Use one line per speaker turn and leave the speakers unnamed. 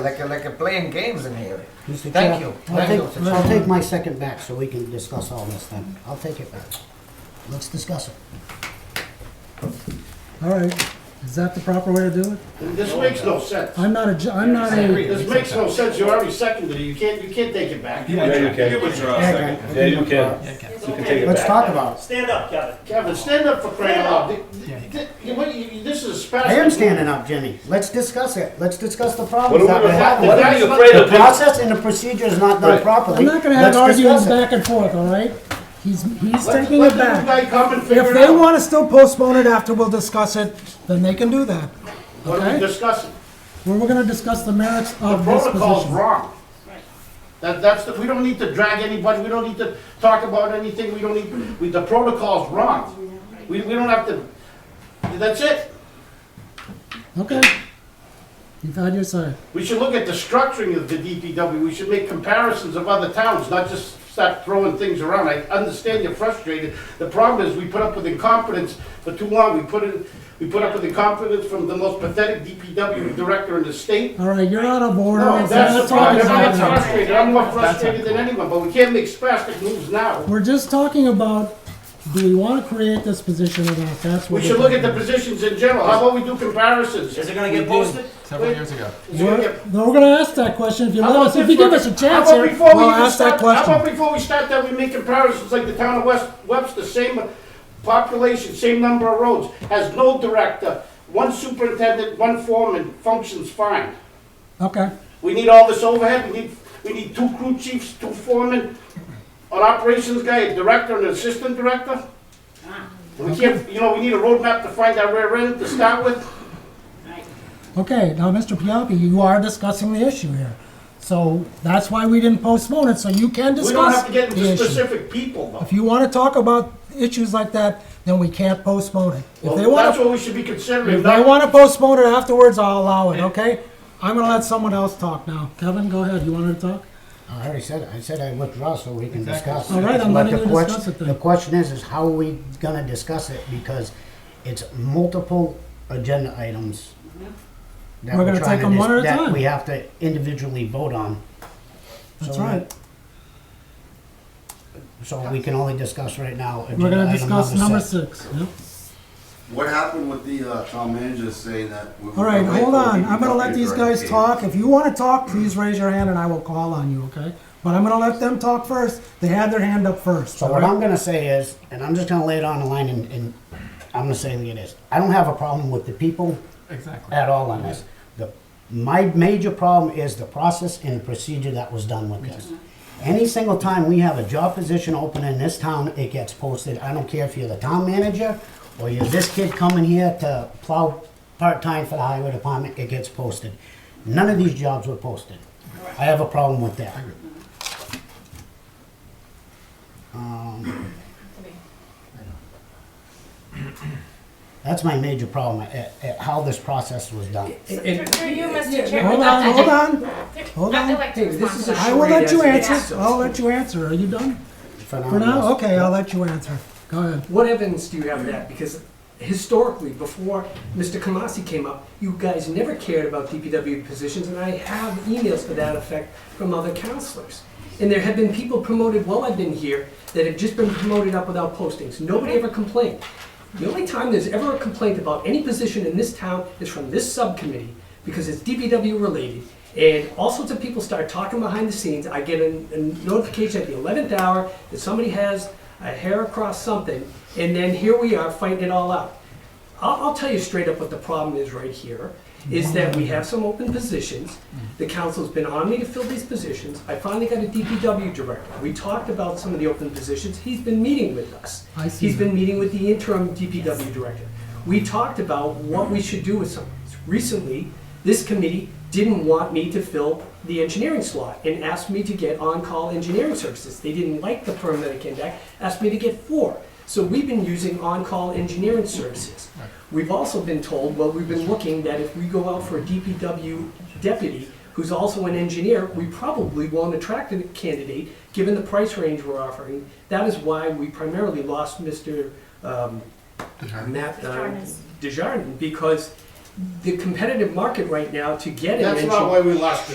Like, a- like a playing games in here.
Mr.
Thank
Chair,
you.
I'll
Thank you,
take,
Mr.
I'll
Chair.
take my second back so we can discuss all this then. I'll take it back. Let's discuss it.
All right, is that the proper way to do it?
This makes no sense.
I'm not a, ju- I'm not a,
This makes no sense, you already seconded it, you can't, you can't take it back.
Yeah, you
You
can.
withdraw a second.
Yeah, you can. You can take it
let's
back.
talk about it.
Stand up, Kevin.
Kevin, stand up for crying out loud. Th- th- th- you- what you- This is a special.
I am standing up, Jimmy. Let's discuss it. Let's discuss the
What are
problems that
we
we're
afraid
having.
What are you afraid
The
of?
process and the procedure is not done
Right.
properly.
I'm not gonna have
Let's
arguments
discuss it.
back and forth, all right? He's, he's
Let-
taking
let
it
the new
back.
guy come and figure
If
it
they
out.
wanna still postpone it after we'll discuss it, then they can do that.
What are we
okay.
discussing?
Well, we're gonna discuss the merits
The
of this
protocol's
position.
wrong. That, that's, the- we don't need to drag anybody, we don't need to talk about anything, we don't need, we, the protocol's wrong. We, we don't have to, that's it.
Okay. You've had your say.
We should look at the structuring of the DPW, we should make comparisons of other towns, not just start throwing things around. I understand you're frustrated, the problem is we put up with incompetence for too long, we put in, we put up with incompetence from the most pathetic DPW director in the state.
All right, you're out of order.
No,
It's
that's
not
the
talking
problem,
about
I'm
that.
frustrated, I'm more frustrated than anyone, but we can't make spastic moves now.
We're just talking about, do we wanna create this position or not? That's what.
We should
we're
look at
doing.
the positions in general, how about we do comparisons?
Is it gonna get posted?
Several years ago.
It's gonna
We're,
get-
no, we're gonna ask that question if you
How
let
about
us, if
this
you give
one?
us a chance
How about
here,
before we
we'll
even
ask that
start- How about
question.
before we start that, we make comparisons like the town of West Webster, same population, same number of roads, has no director, one superintendent, one foreman, functions fine.
Okay,
We need all this overhead, we need, we need two crew chiefs, two foremen, an operations guy, a director and an assistant director.
Ah.
We can't, you know, we need a roadmap to find our rear end to start with.
okay, now, Mr. Piappi, you are discussing the issue here. So that's why we didn't postpone it, so you can
We don't
discuss
have to get
the
into
issue.
specific people though.
If you wanna talk about issues like that, then we can't postpone it. If they
Well, That's
wanna,
what we should be considering.
if
not-
they wanna postpone it afterwards, I'll allow it, okay? I'm gonna let someone else talk now. Kevin, go ahead, you wanted to talk?
I already said, it. I said I withdraw so we can discuss.
All right, I'm
But
letting
the
you
quest-
discuss it then.
The question is, is how are we gonna discuss it? Because it's multiple agenda items. that
We're gonna
trying
take
to
them one
dis-
at a
That
time.
we have to individually vote on.
That's
So,
right.
So we can only discuss right now.
We're
agenda
gonna
item
discuss number six, yep.
What happened with the uh, town manager saying that? we were
All right,
gonna wait
hold
for
on.
the
I'm gonna let these guys
DPW?
talk. If you wanna talk, please raise your hand and I will call on you, okay? But I'm gonna let them talk first. They had their hand up first.
So
all
what
right?
I'm gonna say is, and I'm just gonna lay it on the line and, and I'm gonna say it is, I don't have a problem with the people
Exactly.
at all on this. The, my major problem is the process and procedure that was done with this. Any single time we have a job position open in this town, it gets posted. I don't care if you're the town manager or you're this kid coming here to plow part-time for the highway department, it gets posted. None of these jobs were posted. I have a problem with that. Um, That's my major problem, at, at how this process was done.
Through you, Mr. Chairman.
Hold on, hold on, hold
I'd
on.
like to respond to that.
I will let you answer. I'll let you answer. Are you done? For now?
Phenomenal.
Okay, I'll let you answer. Go ahead.
What evidence do you have of that? Because historically, before Mr. Kamasi came up, you guys never cared about DPW positions, and I have emails to that effect from other counselors. And there have been people promoted while I've been here that have just been promoted up without postings. Nobody ever complained. The only time there's ever a complaint about any position in this town is from this subcommittee, because it's DPW related. And all sorts of people start talking behind the scenes. I get a, a notification at the eleventh hour that somebody has a hair across something, and then here we are fighting it all out. I'll, I'll tell you straight up what the problem is right here, is that we have some open positions. The council's been on me to fill these positions. I finally got a DPW director. We talked about some of the open positions. He's been meeting with us.
I see
He's
that.
been meeting with the interim DPW director. We talked about what we should do with some of these. Recently, this committee didn't want me to fill the engineering slot and asked me to get on-call engineering services. They didn't like the firm that I came back, asked me to get four. So we've been using on-call engineering services. We've also been told, well, we've been looking that if we go out for a DPW deputy who's also an engineer, we probably won't attract a candidate given the price range we're offering. That is why we primarily lost Mr. um, Matt uh, Desjardins because the competitive market right now to get an
That's
engineer.
not why we lost